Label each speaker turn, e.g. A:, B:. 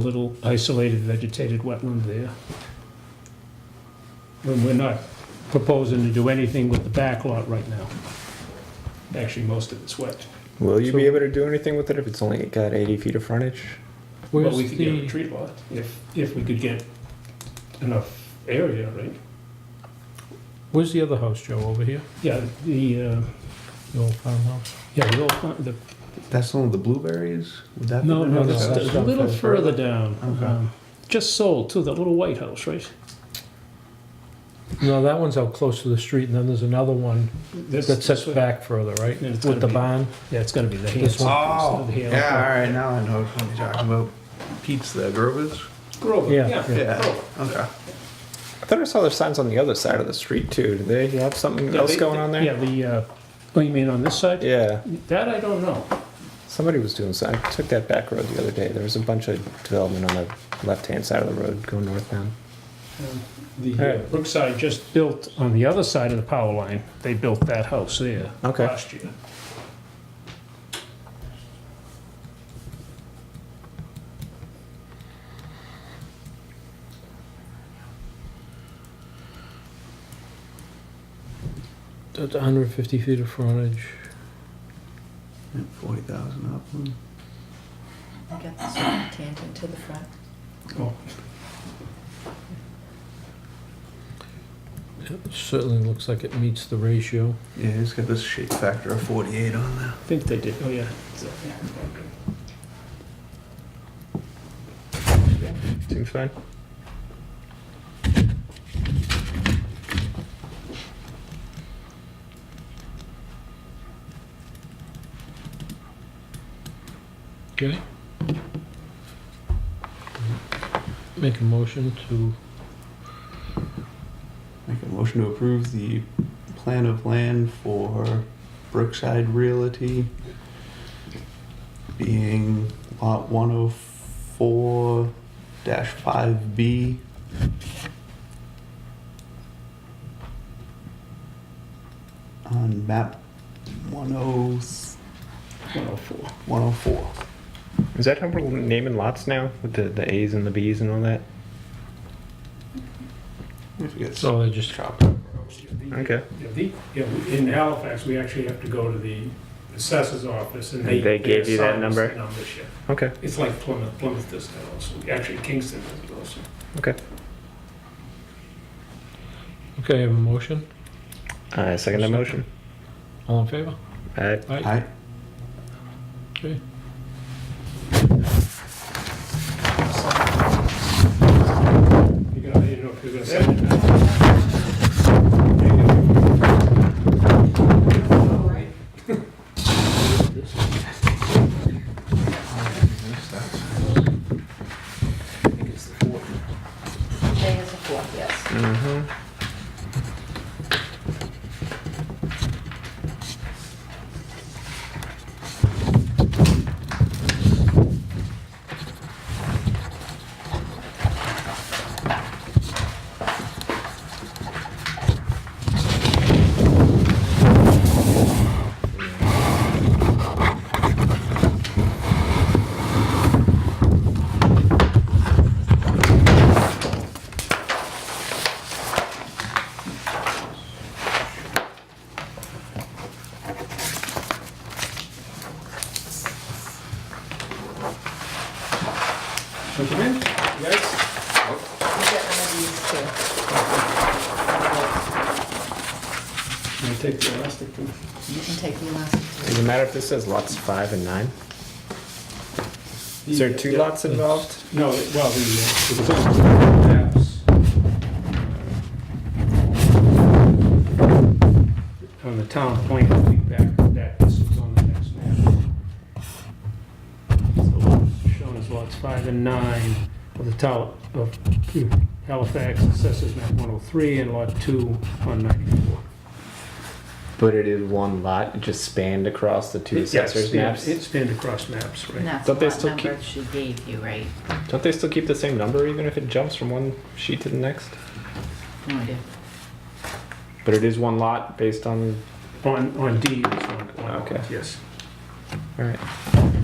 A: little isolated vegetated wetland there. And we're not proposing to do anything with the back lot right now. Actually, most of it's wet.
B: Will you
A: So-
B: be able to do anything with it if it's only got 80 feet of frontage?
A: But
C: Where's
A: we could get a
C: the,
A: tree lot if, if we could get enough area, right?
C: where's the other house, Joe, over here?
A: Yeah, the, uh,
C: The old farmhouse?
A: yeah, the old, farm- the,
D: That's the one with the blueberries? Would that
A: no,
D: be
A: no,
C: that's-
A: it's
C: that's
A: a little further down.
D: Okay.
A: um, Just sold to the little white house, right?
C: No, that one's out close to the street, and then there's another one
A: This-
C: that sets
A: this one-
C: back further, right?
A: Yeah, it's
C: With
A: gotta
C: the
A: be-
C: barn?
A: Yeah, it's gonna be the
C: This
A: hands.
C: one.
D: Oh, yeah, all right, now I know what you're talking about. Pete's the Grovers?
A: Grover,
C: Yeah,
A: yeah.
D: yeah.
A: Grover.
D: Okay.
B: I thought I saw there's signs on the other side of the street too. Do they have something
A: Yeah,
B: else
A: they-
B: going on there?
A: Yeah, the, uh, oh, you mean on this side?
B: Yeah.
A: That I don't know.
B: Somebody was doing so. I took that back road the other day. There was a bunch of development on the left hand side of the road going northbound.
A: The
B: All
A: uh,
B: right.
A: Brookside just built on the other side of the power line. They built that house there
B: Okay.
A: last year.
C: That's 150 feet of frontage.
D: And 40,000 up. one.
E: Get this one tangent to the front.
A: Oh,
C: It certainly looks like it meets the ratio.
D: Yeah, it's got this shape factor of 48 on there.
A: I think they did. Oh, yeah. So, yeah.
B: Seems fine.
C: Okay. Make a motion to,
D: Make a motion to approve the plan of land for Brookside Realty being lot 104 5B. On map 104.
A: 104.
D: 104.
B: Is that how we're naming lots now with the, the A's and the B's and all that?
D: If it gets
C: so I just,
D: chopped up.
B: Okay.
F: Yeah, the- yeah, we- In Halifax, we actually have to go to the assessor's office and they.
B: They gave you that
F: assign us
B: number?
F: the numbers, yeah.
B: Okay.
F: It's like Plymouth, Plymouth does that also, actually Kingston does it also.
C: okay, I have a motion.
B: I second that motion.
C: All in favor?
B: Aye.
C: Aye.
D: Aye.
C: Okay.
F: You gotta, you know, if you're gonna send it out.
E: Today is the fourth, yes.
B: Mm-hmm.
E: You get one of these
A: Can I take the elastic thing?
E: too. You can take the elastic.
B: Does it matter if this says lots five and nine? Is there two
F: Yeah.
B: lots involved?
F: No, it- well, the, uh, it's on maps. On the town plan, I think back, that, this was on the next map.
A: So Shown as lots five and nine of the town of Halifax, assessors map 103 and lot two on 94.
B: But it is one lot, it just spanned across the two
A: It- yeah, it
B: assessors'
A: spanned-
B: maps.
A: It spanned across maps, right?
E: And that's
B: Don't they
E: what
B: still keep-
E: number she gave you, right?
B: Don't they still keep the same number even if it jumps from one sheet to the next?
E: No idea.
B: But it is one lot based on.
A: On, on D, it's on, on,
B: Okay.
A: yes.
B: All right.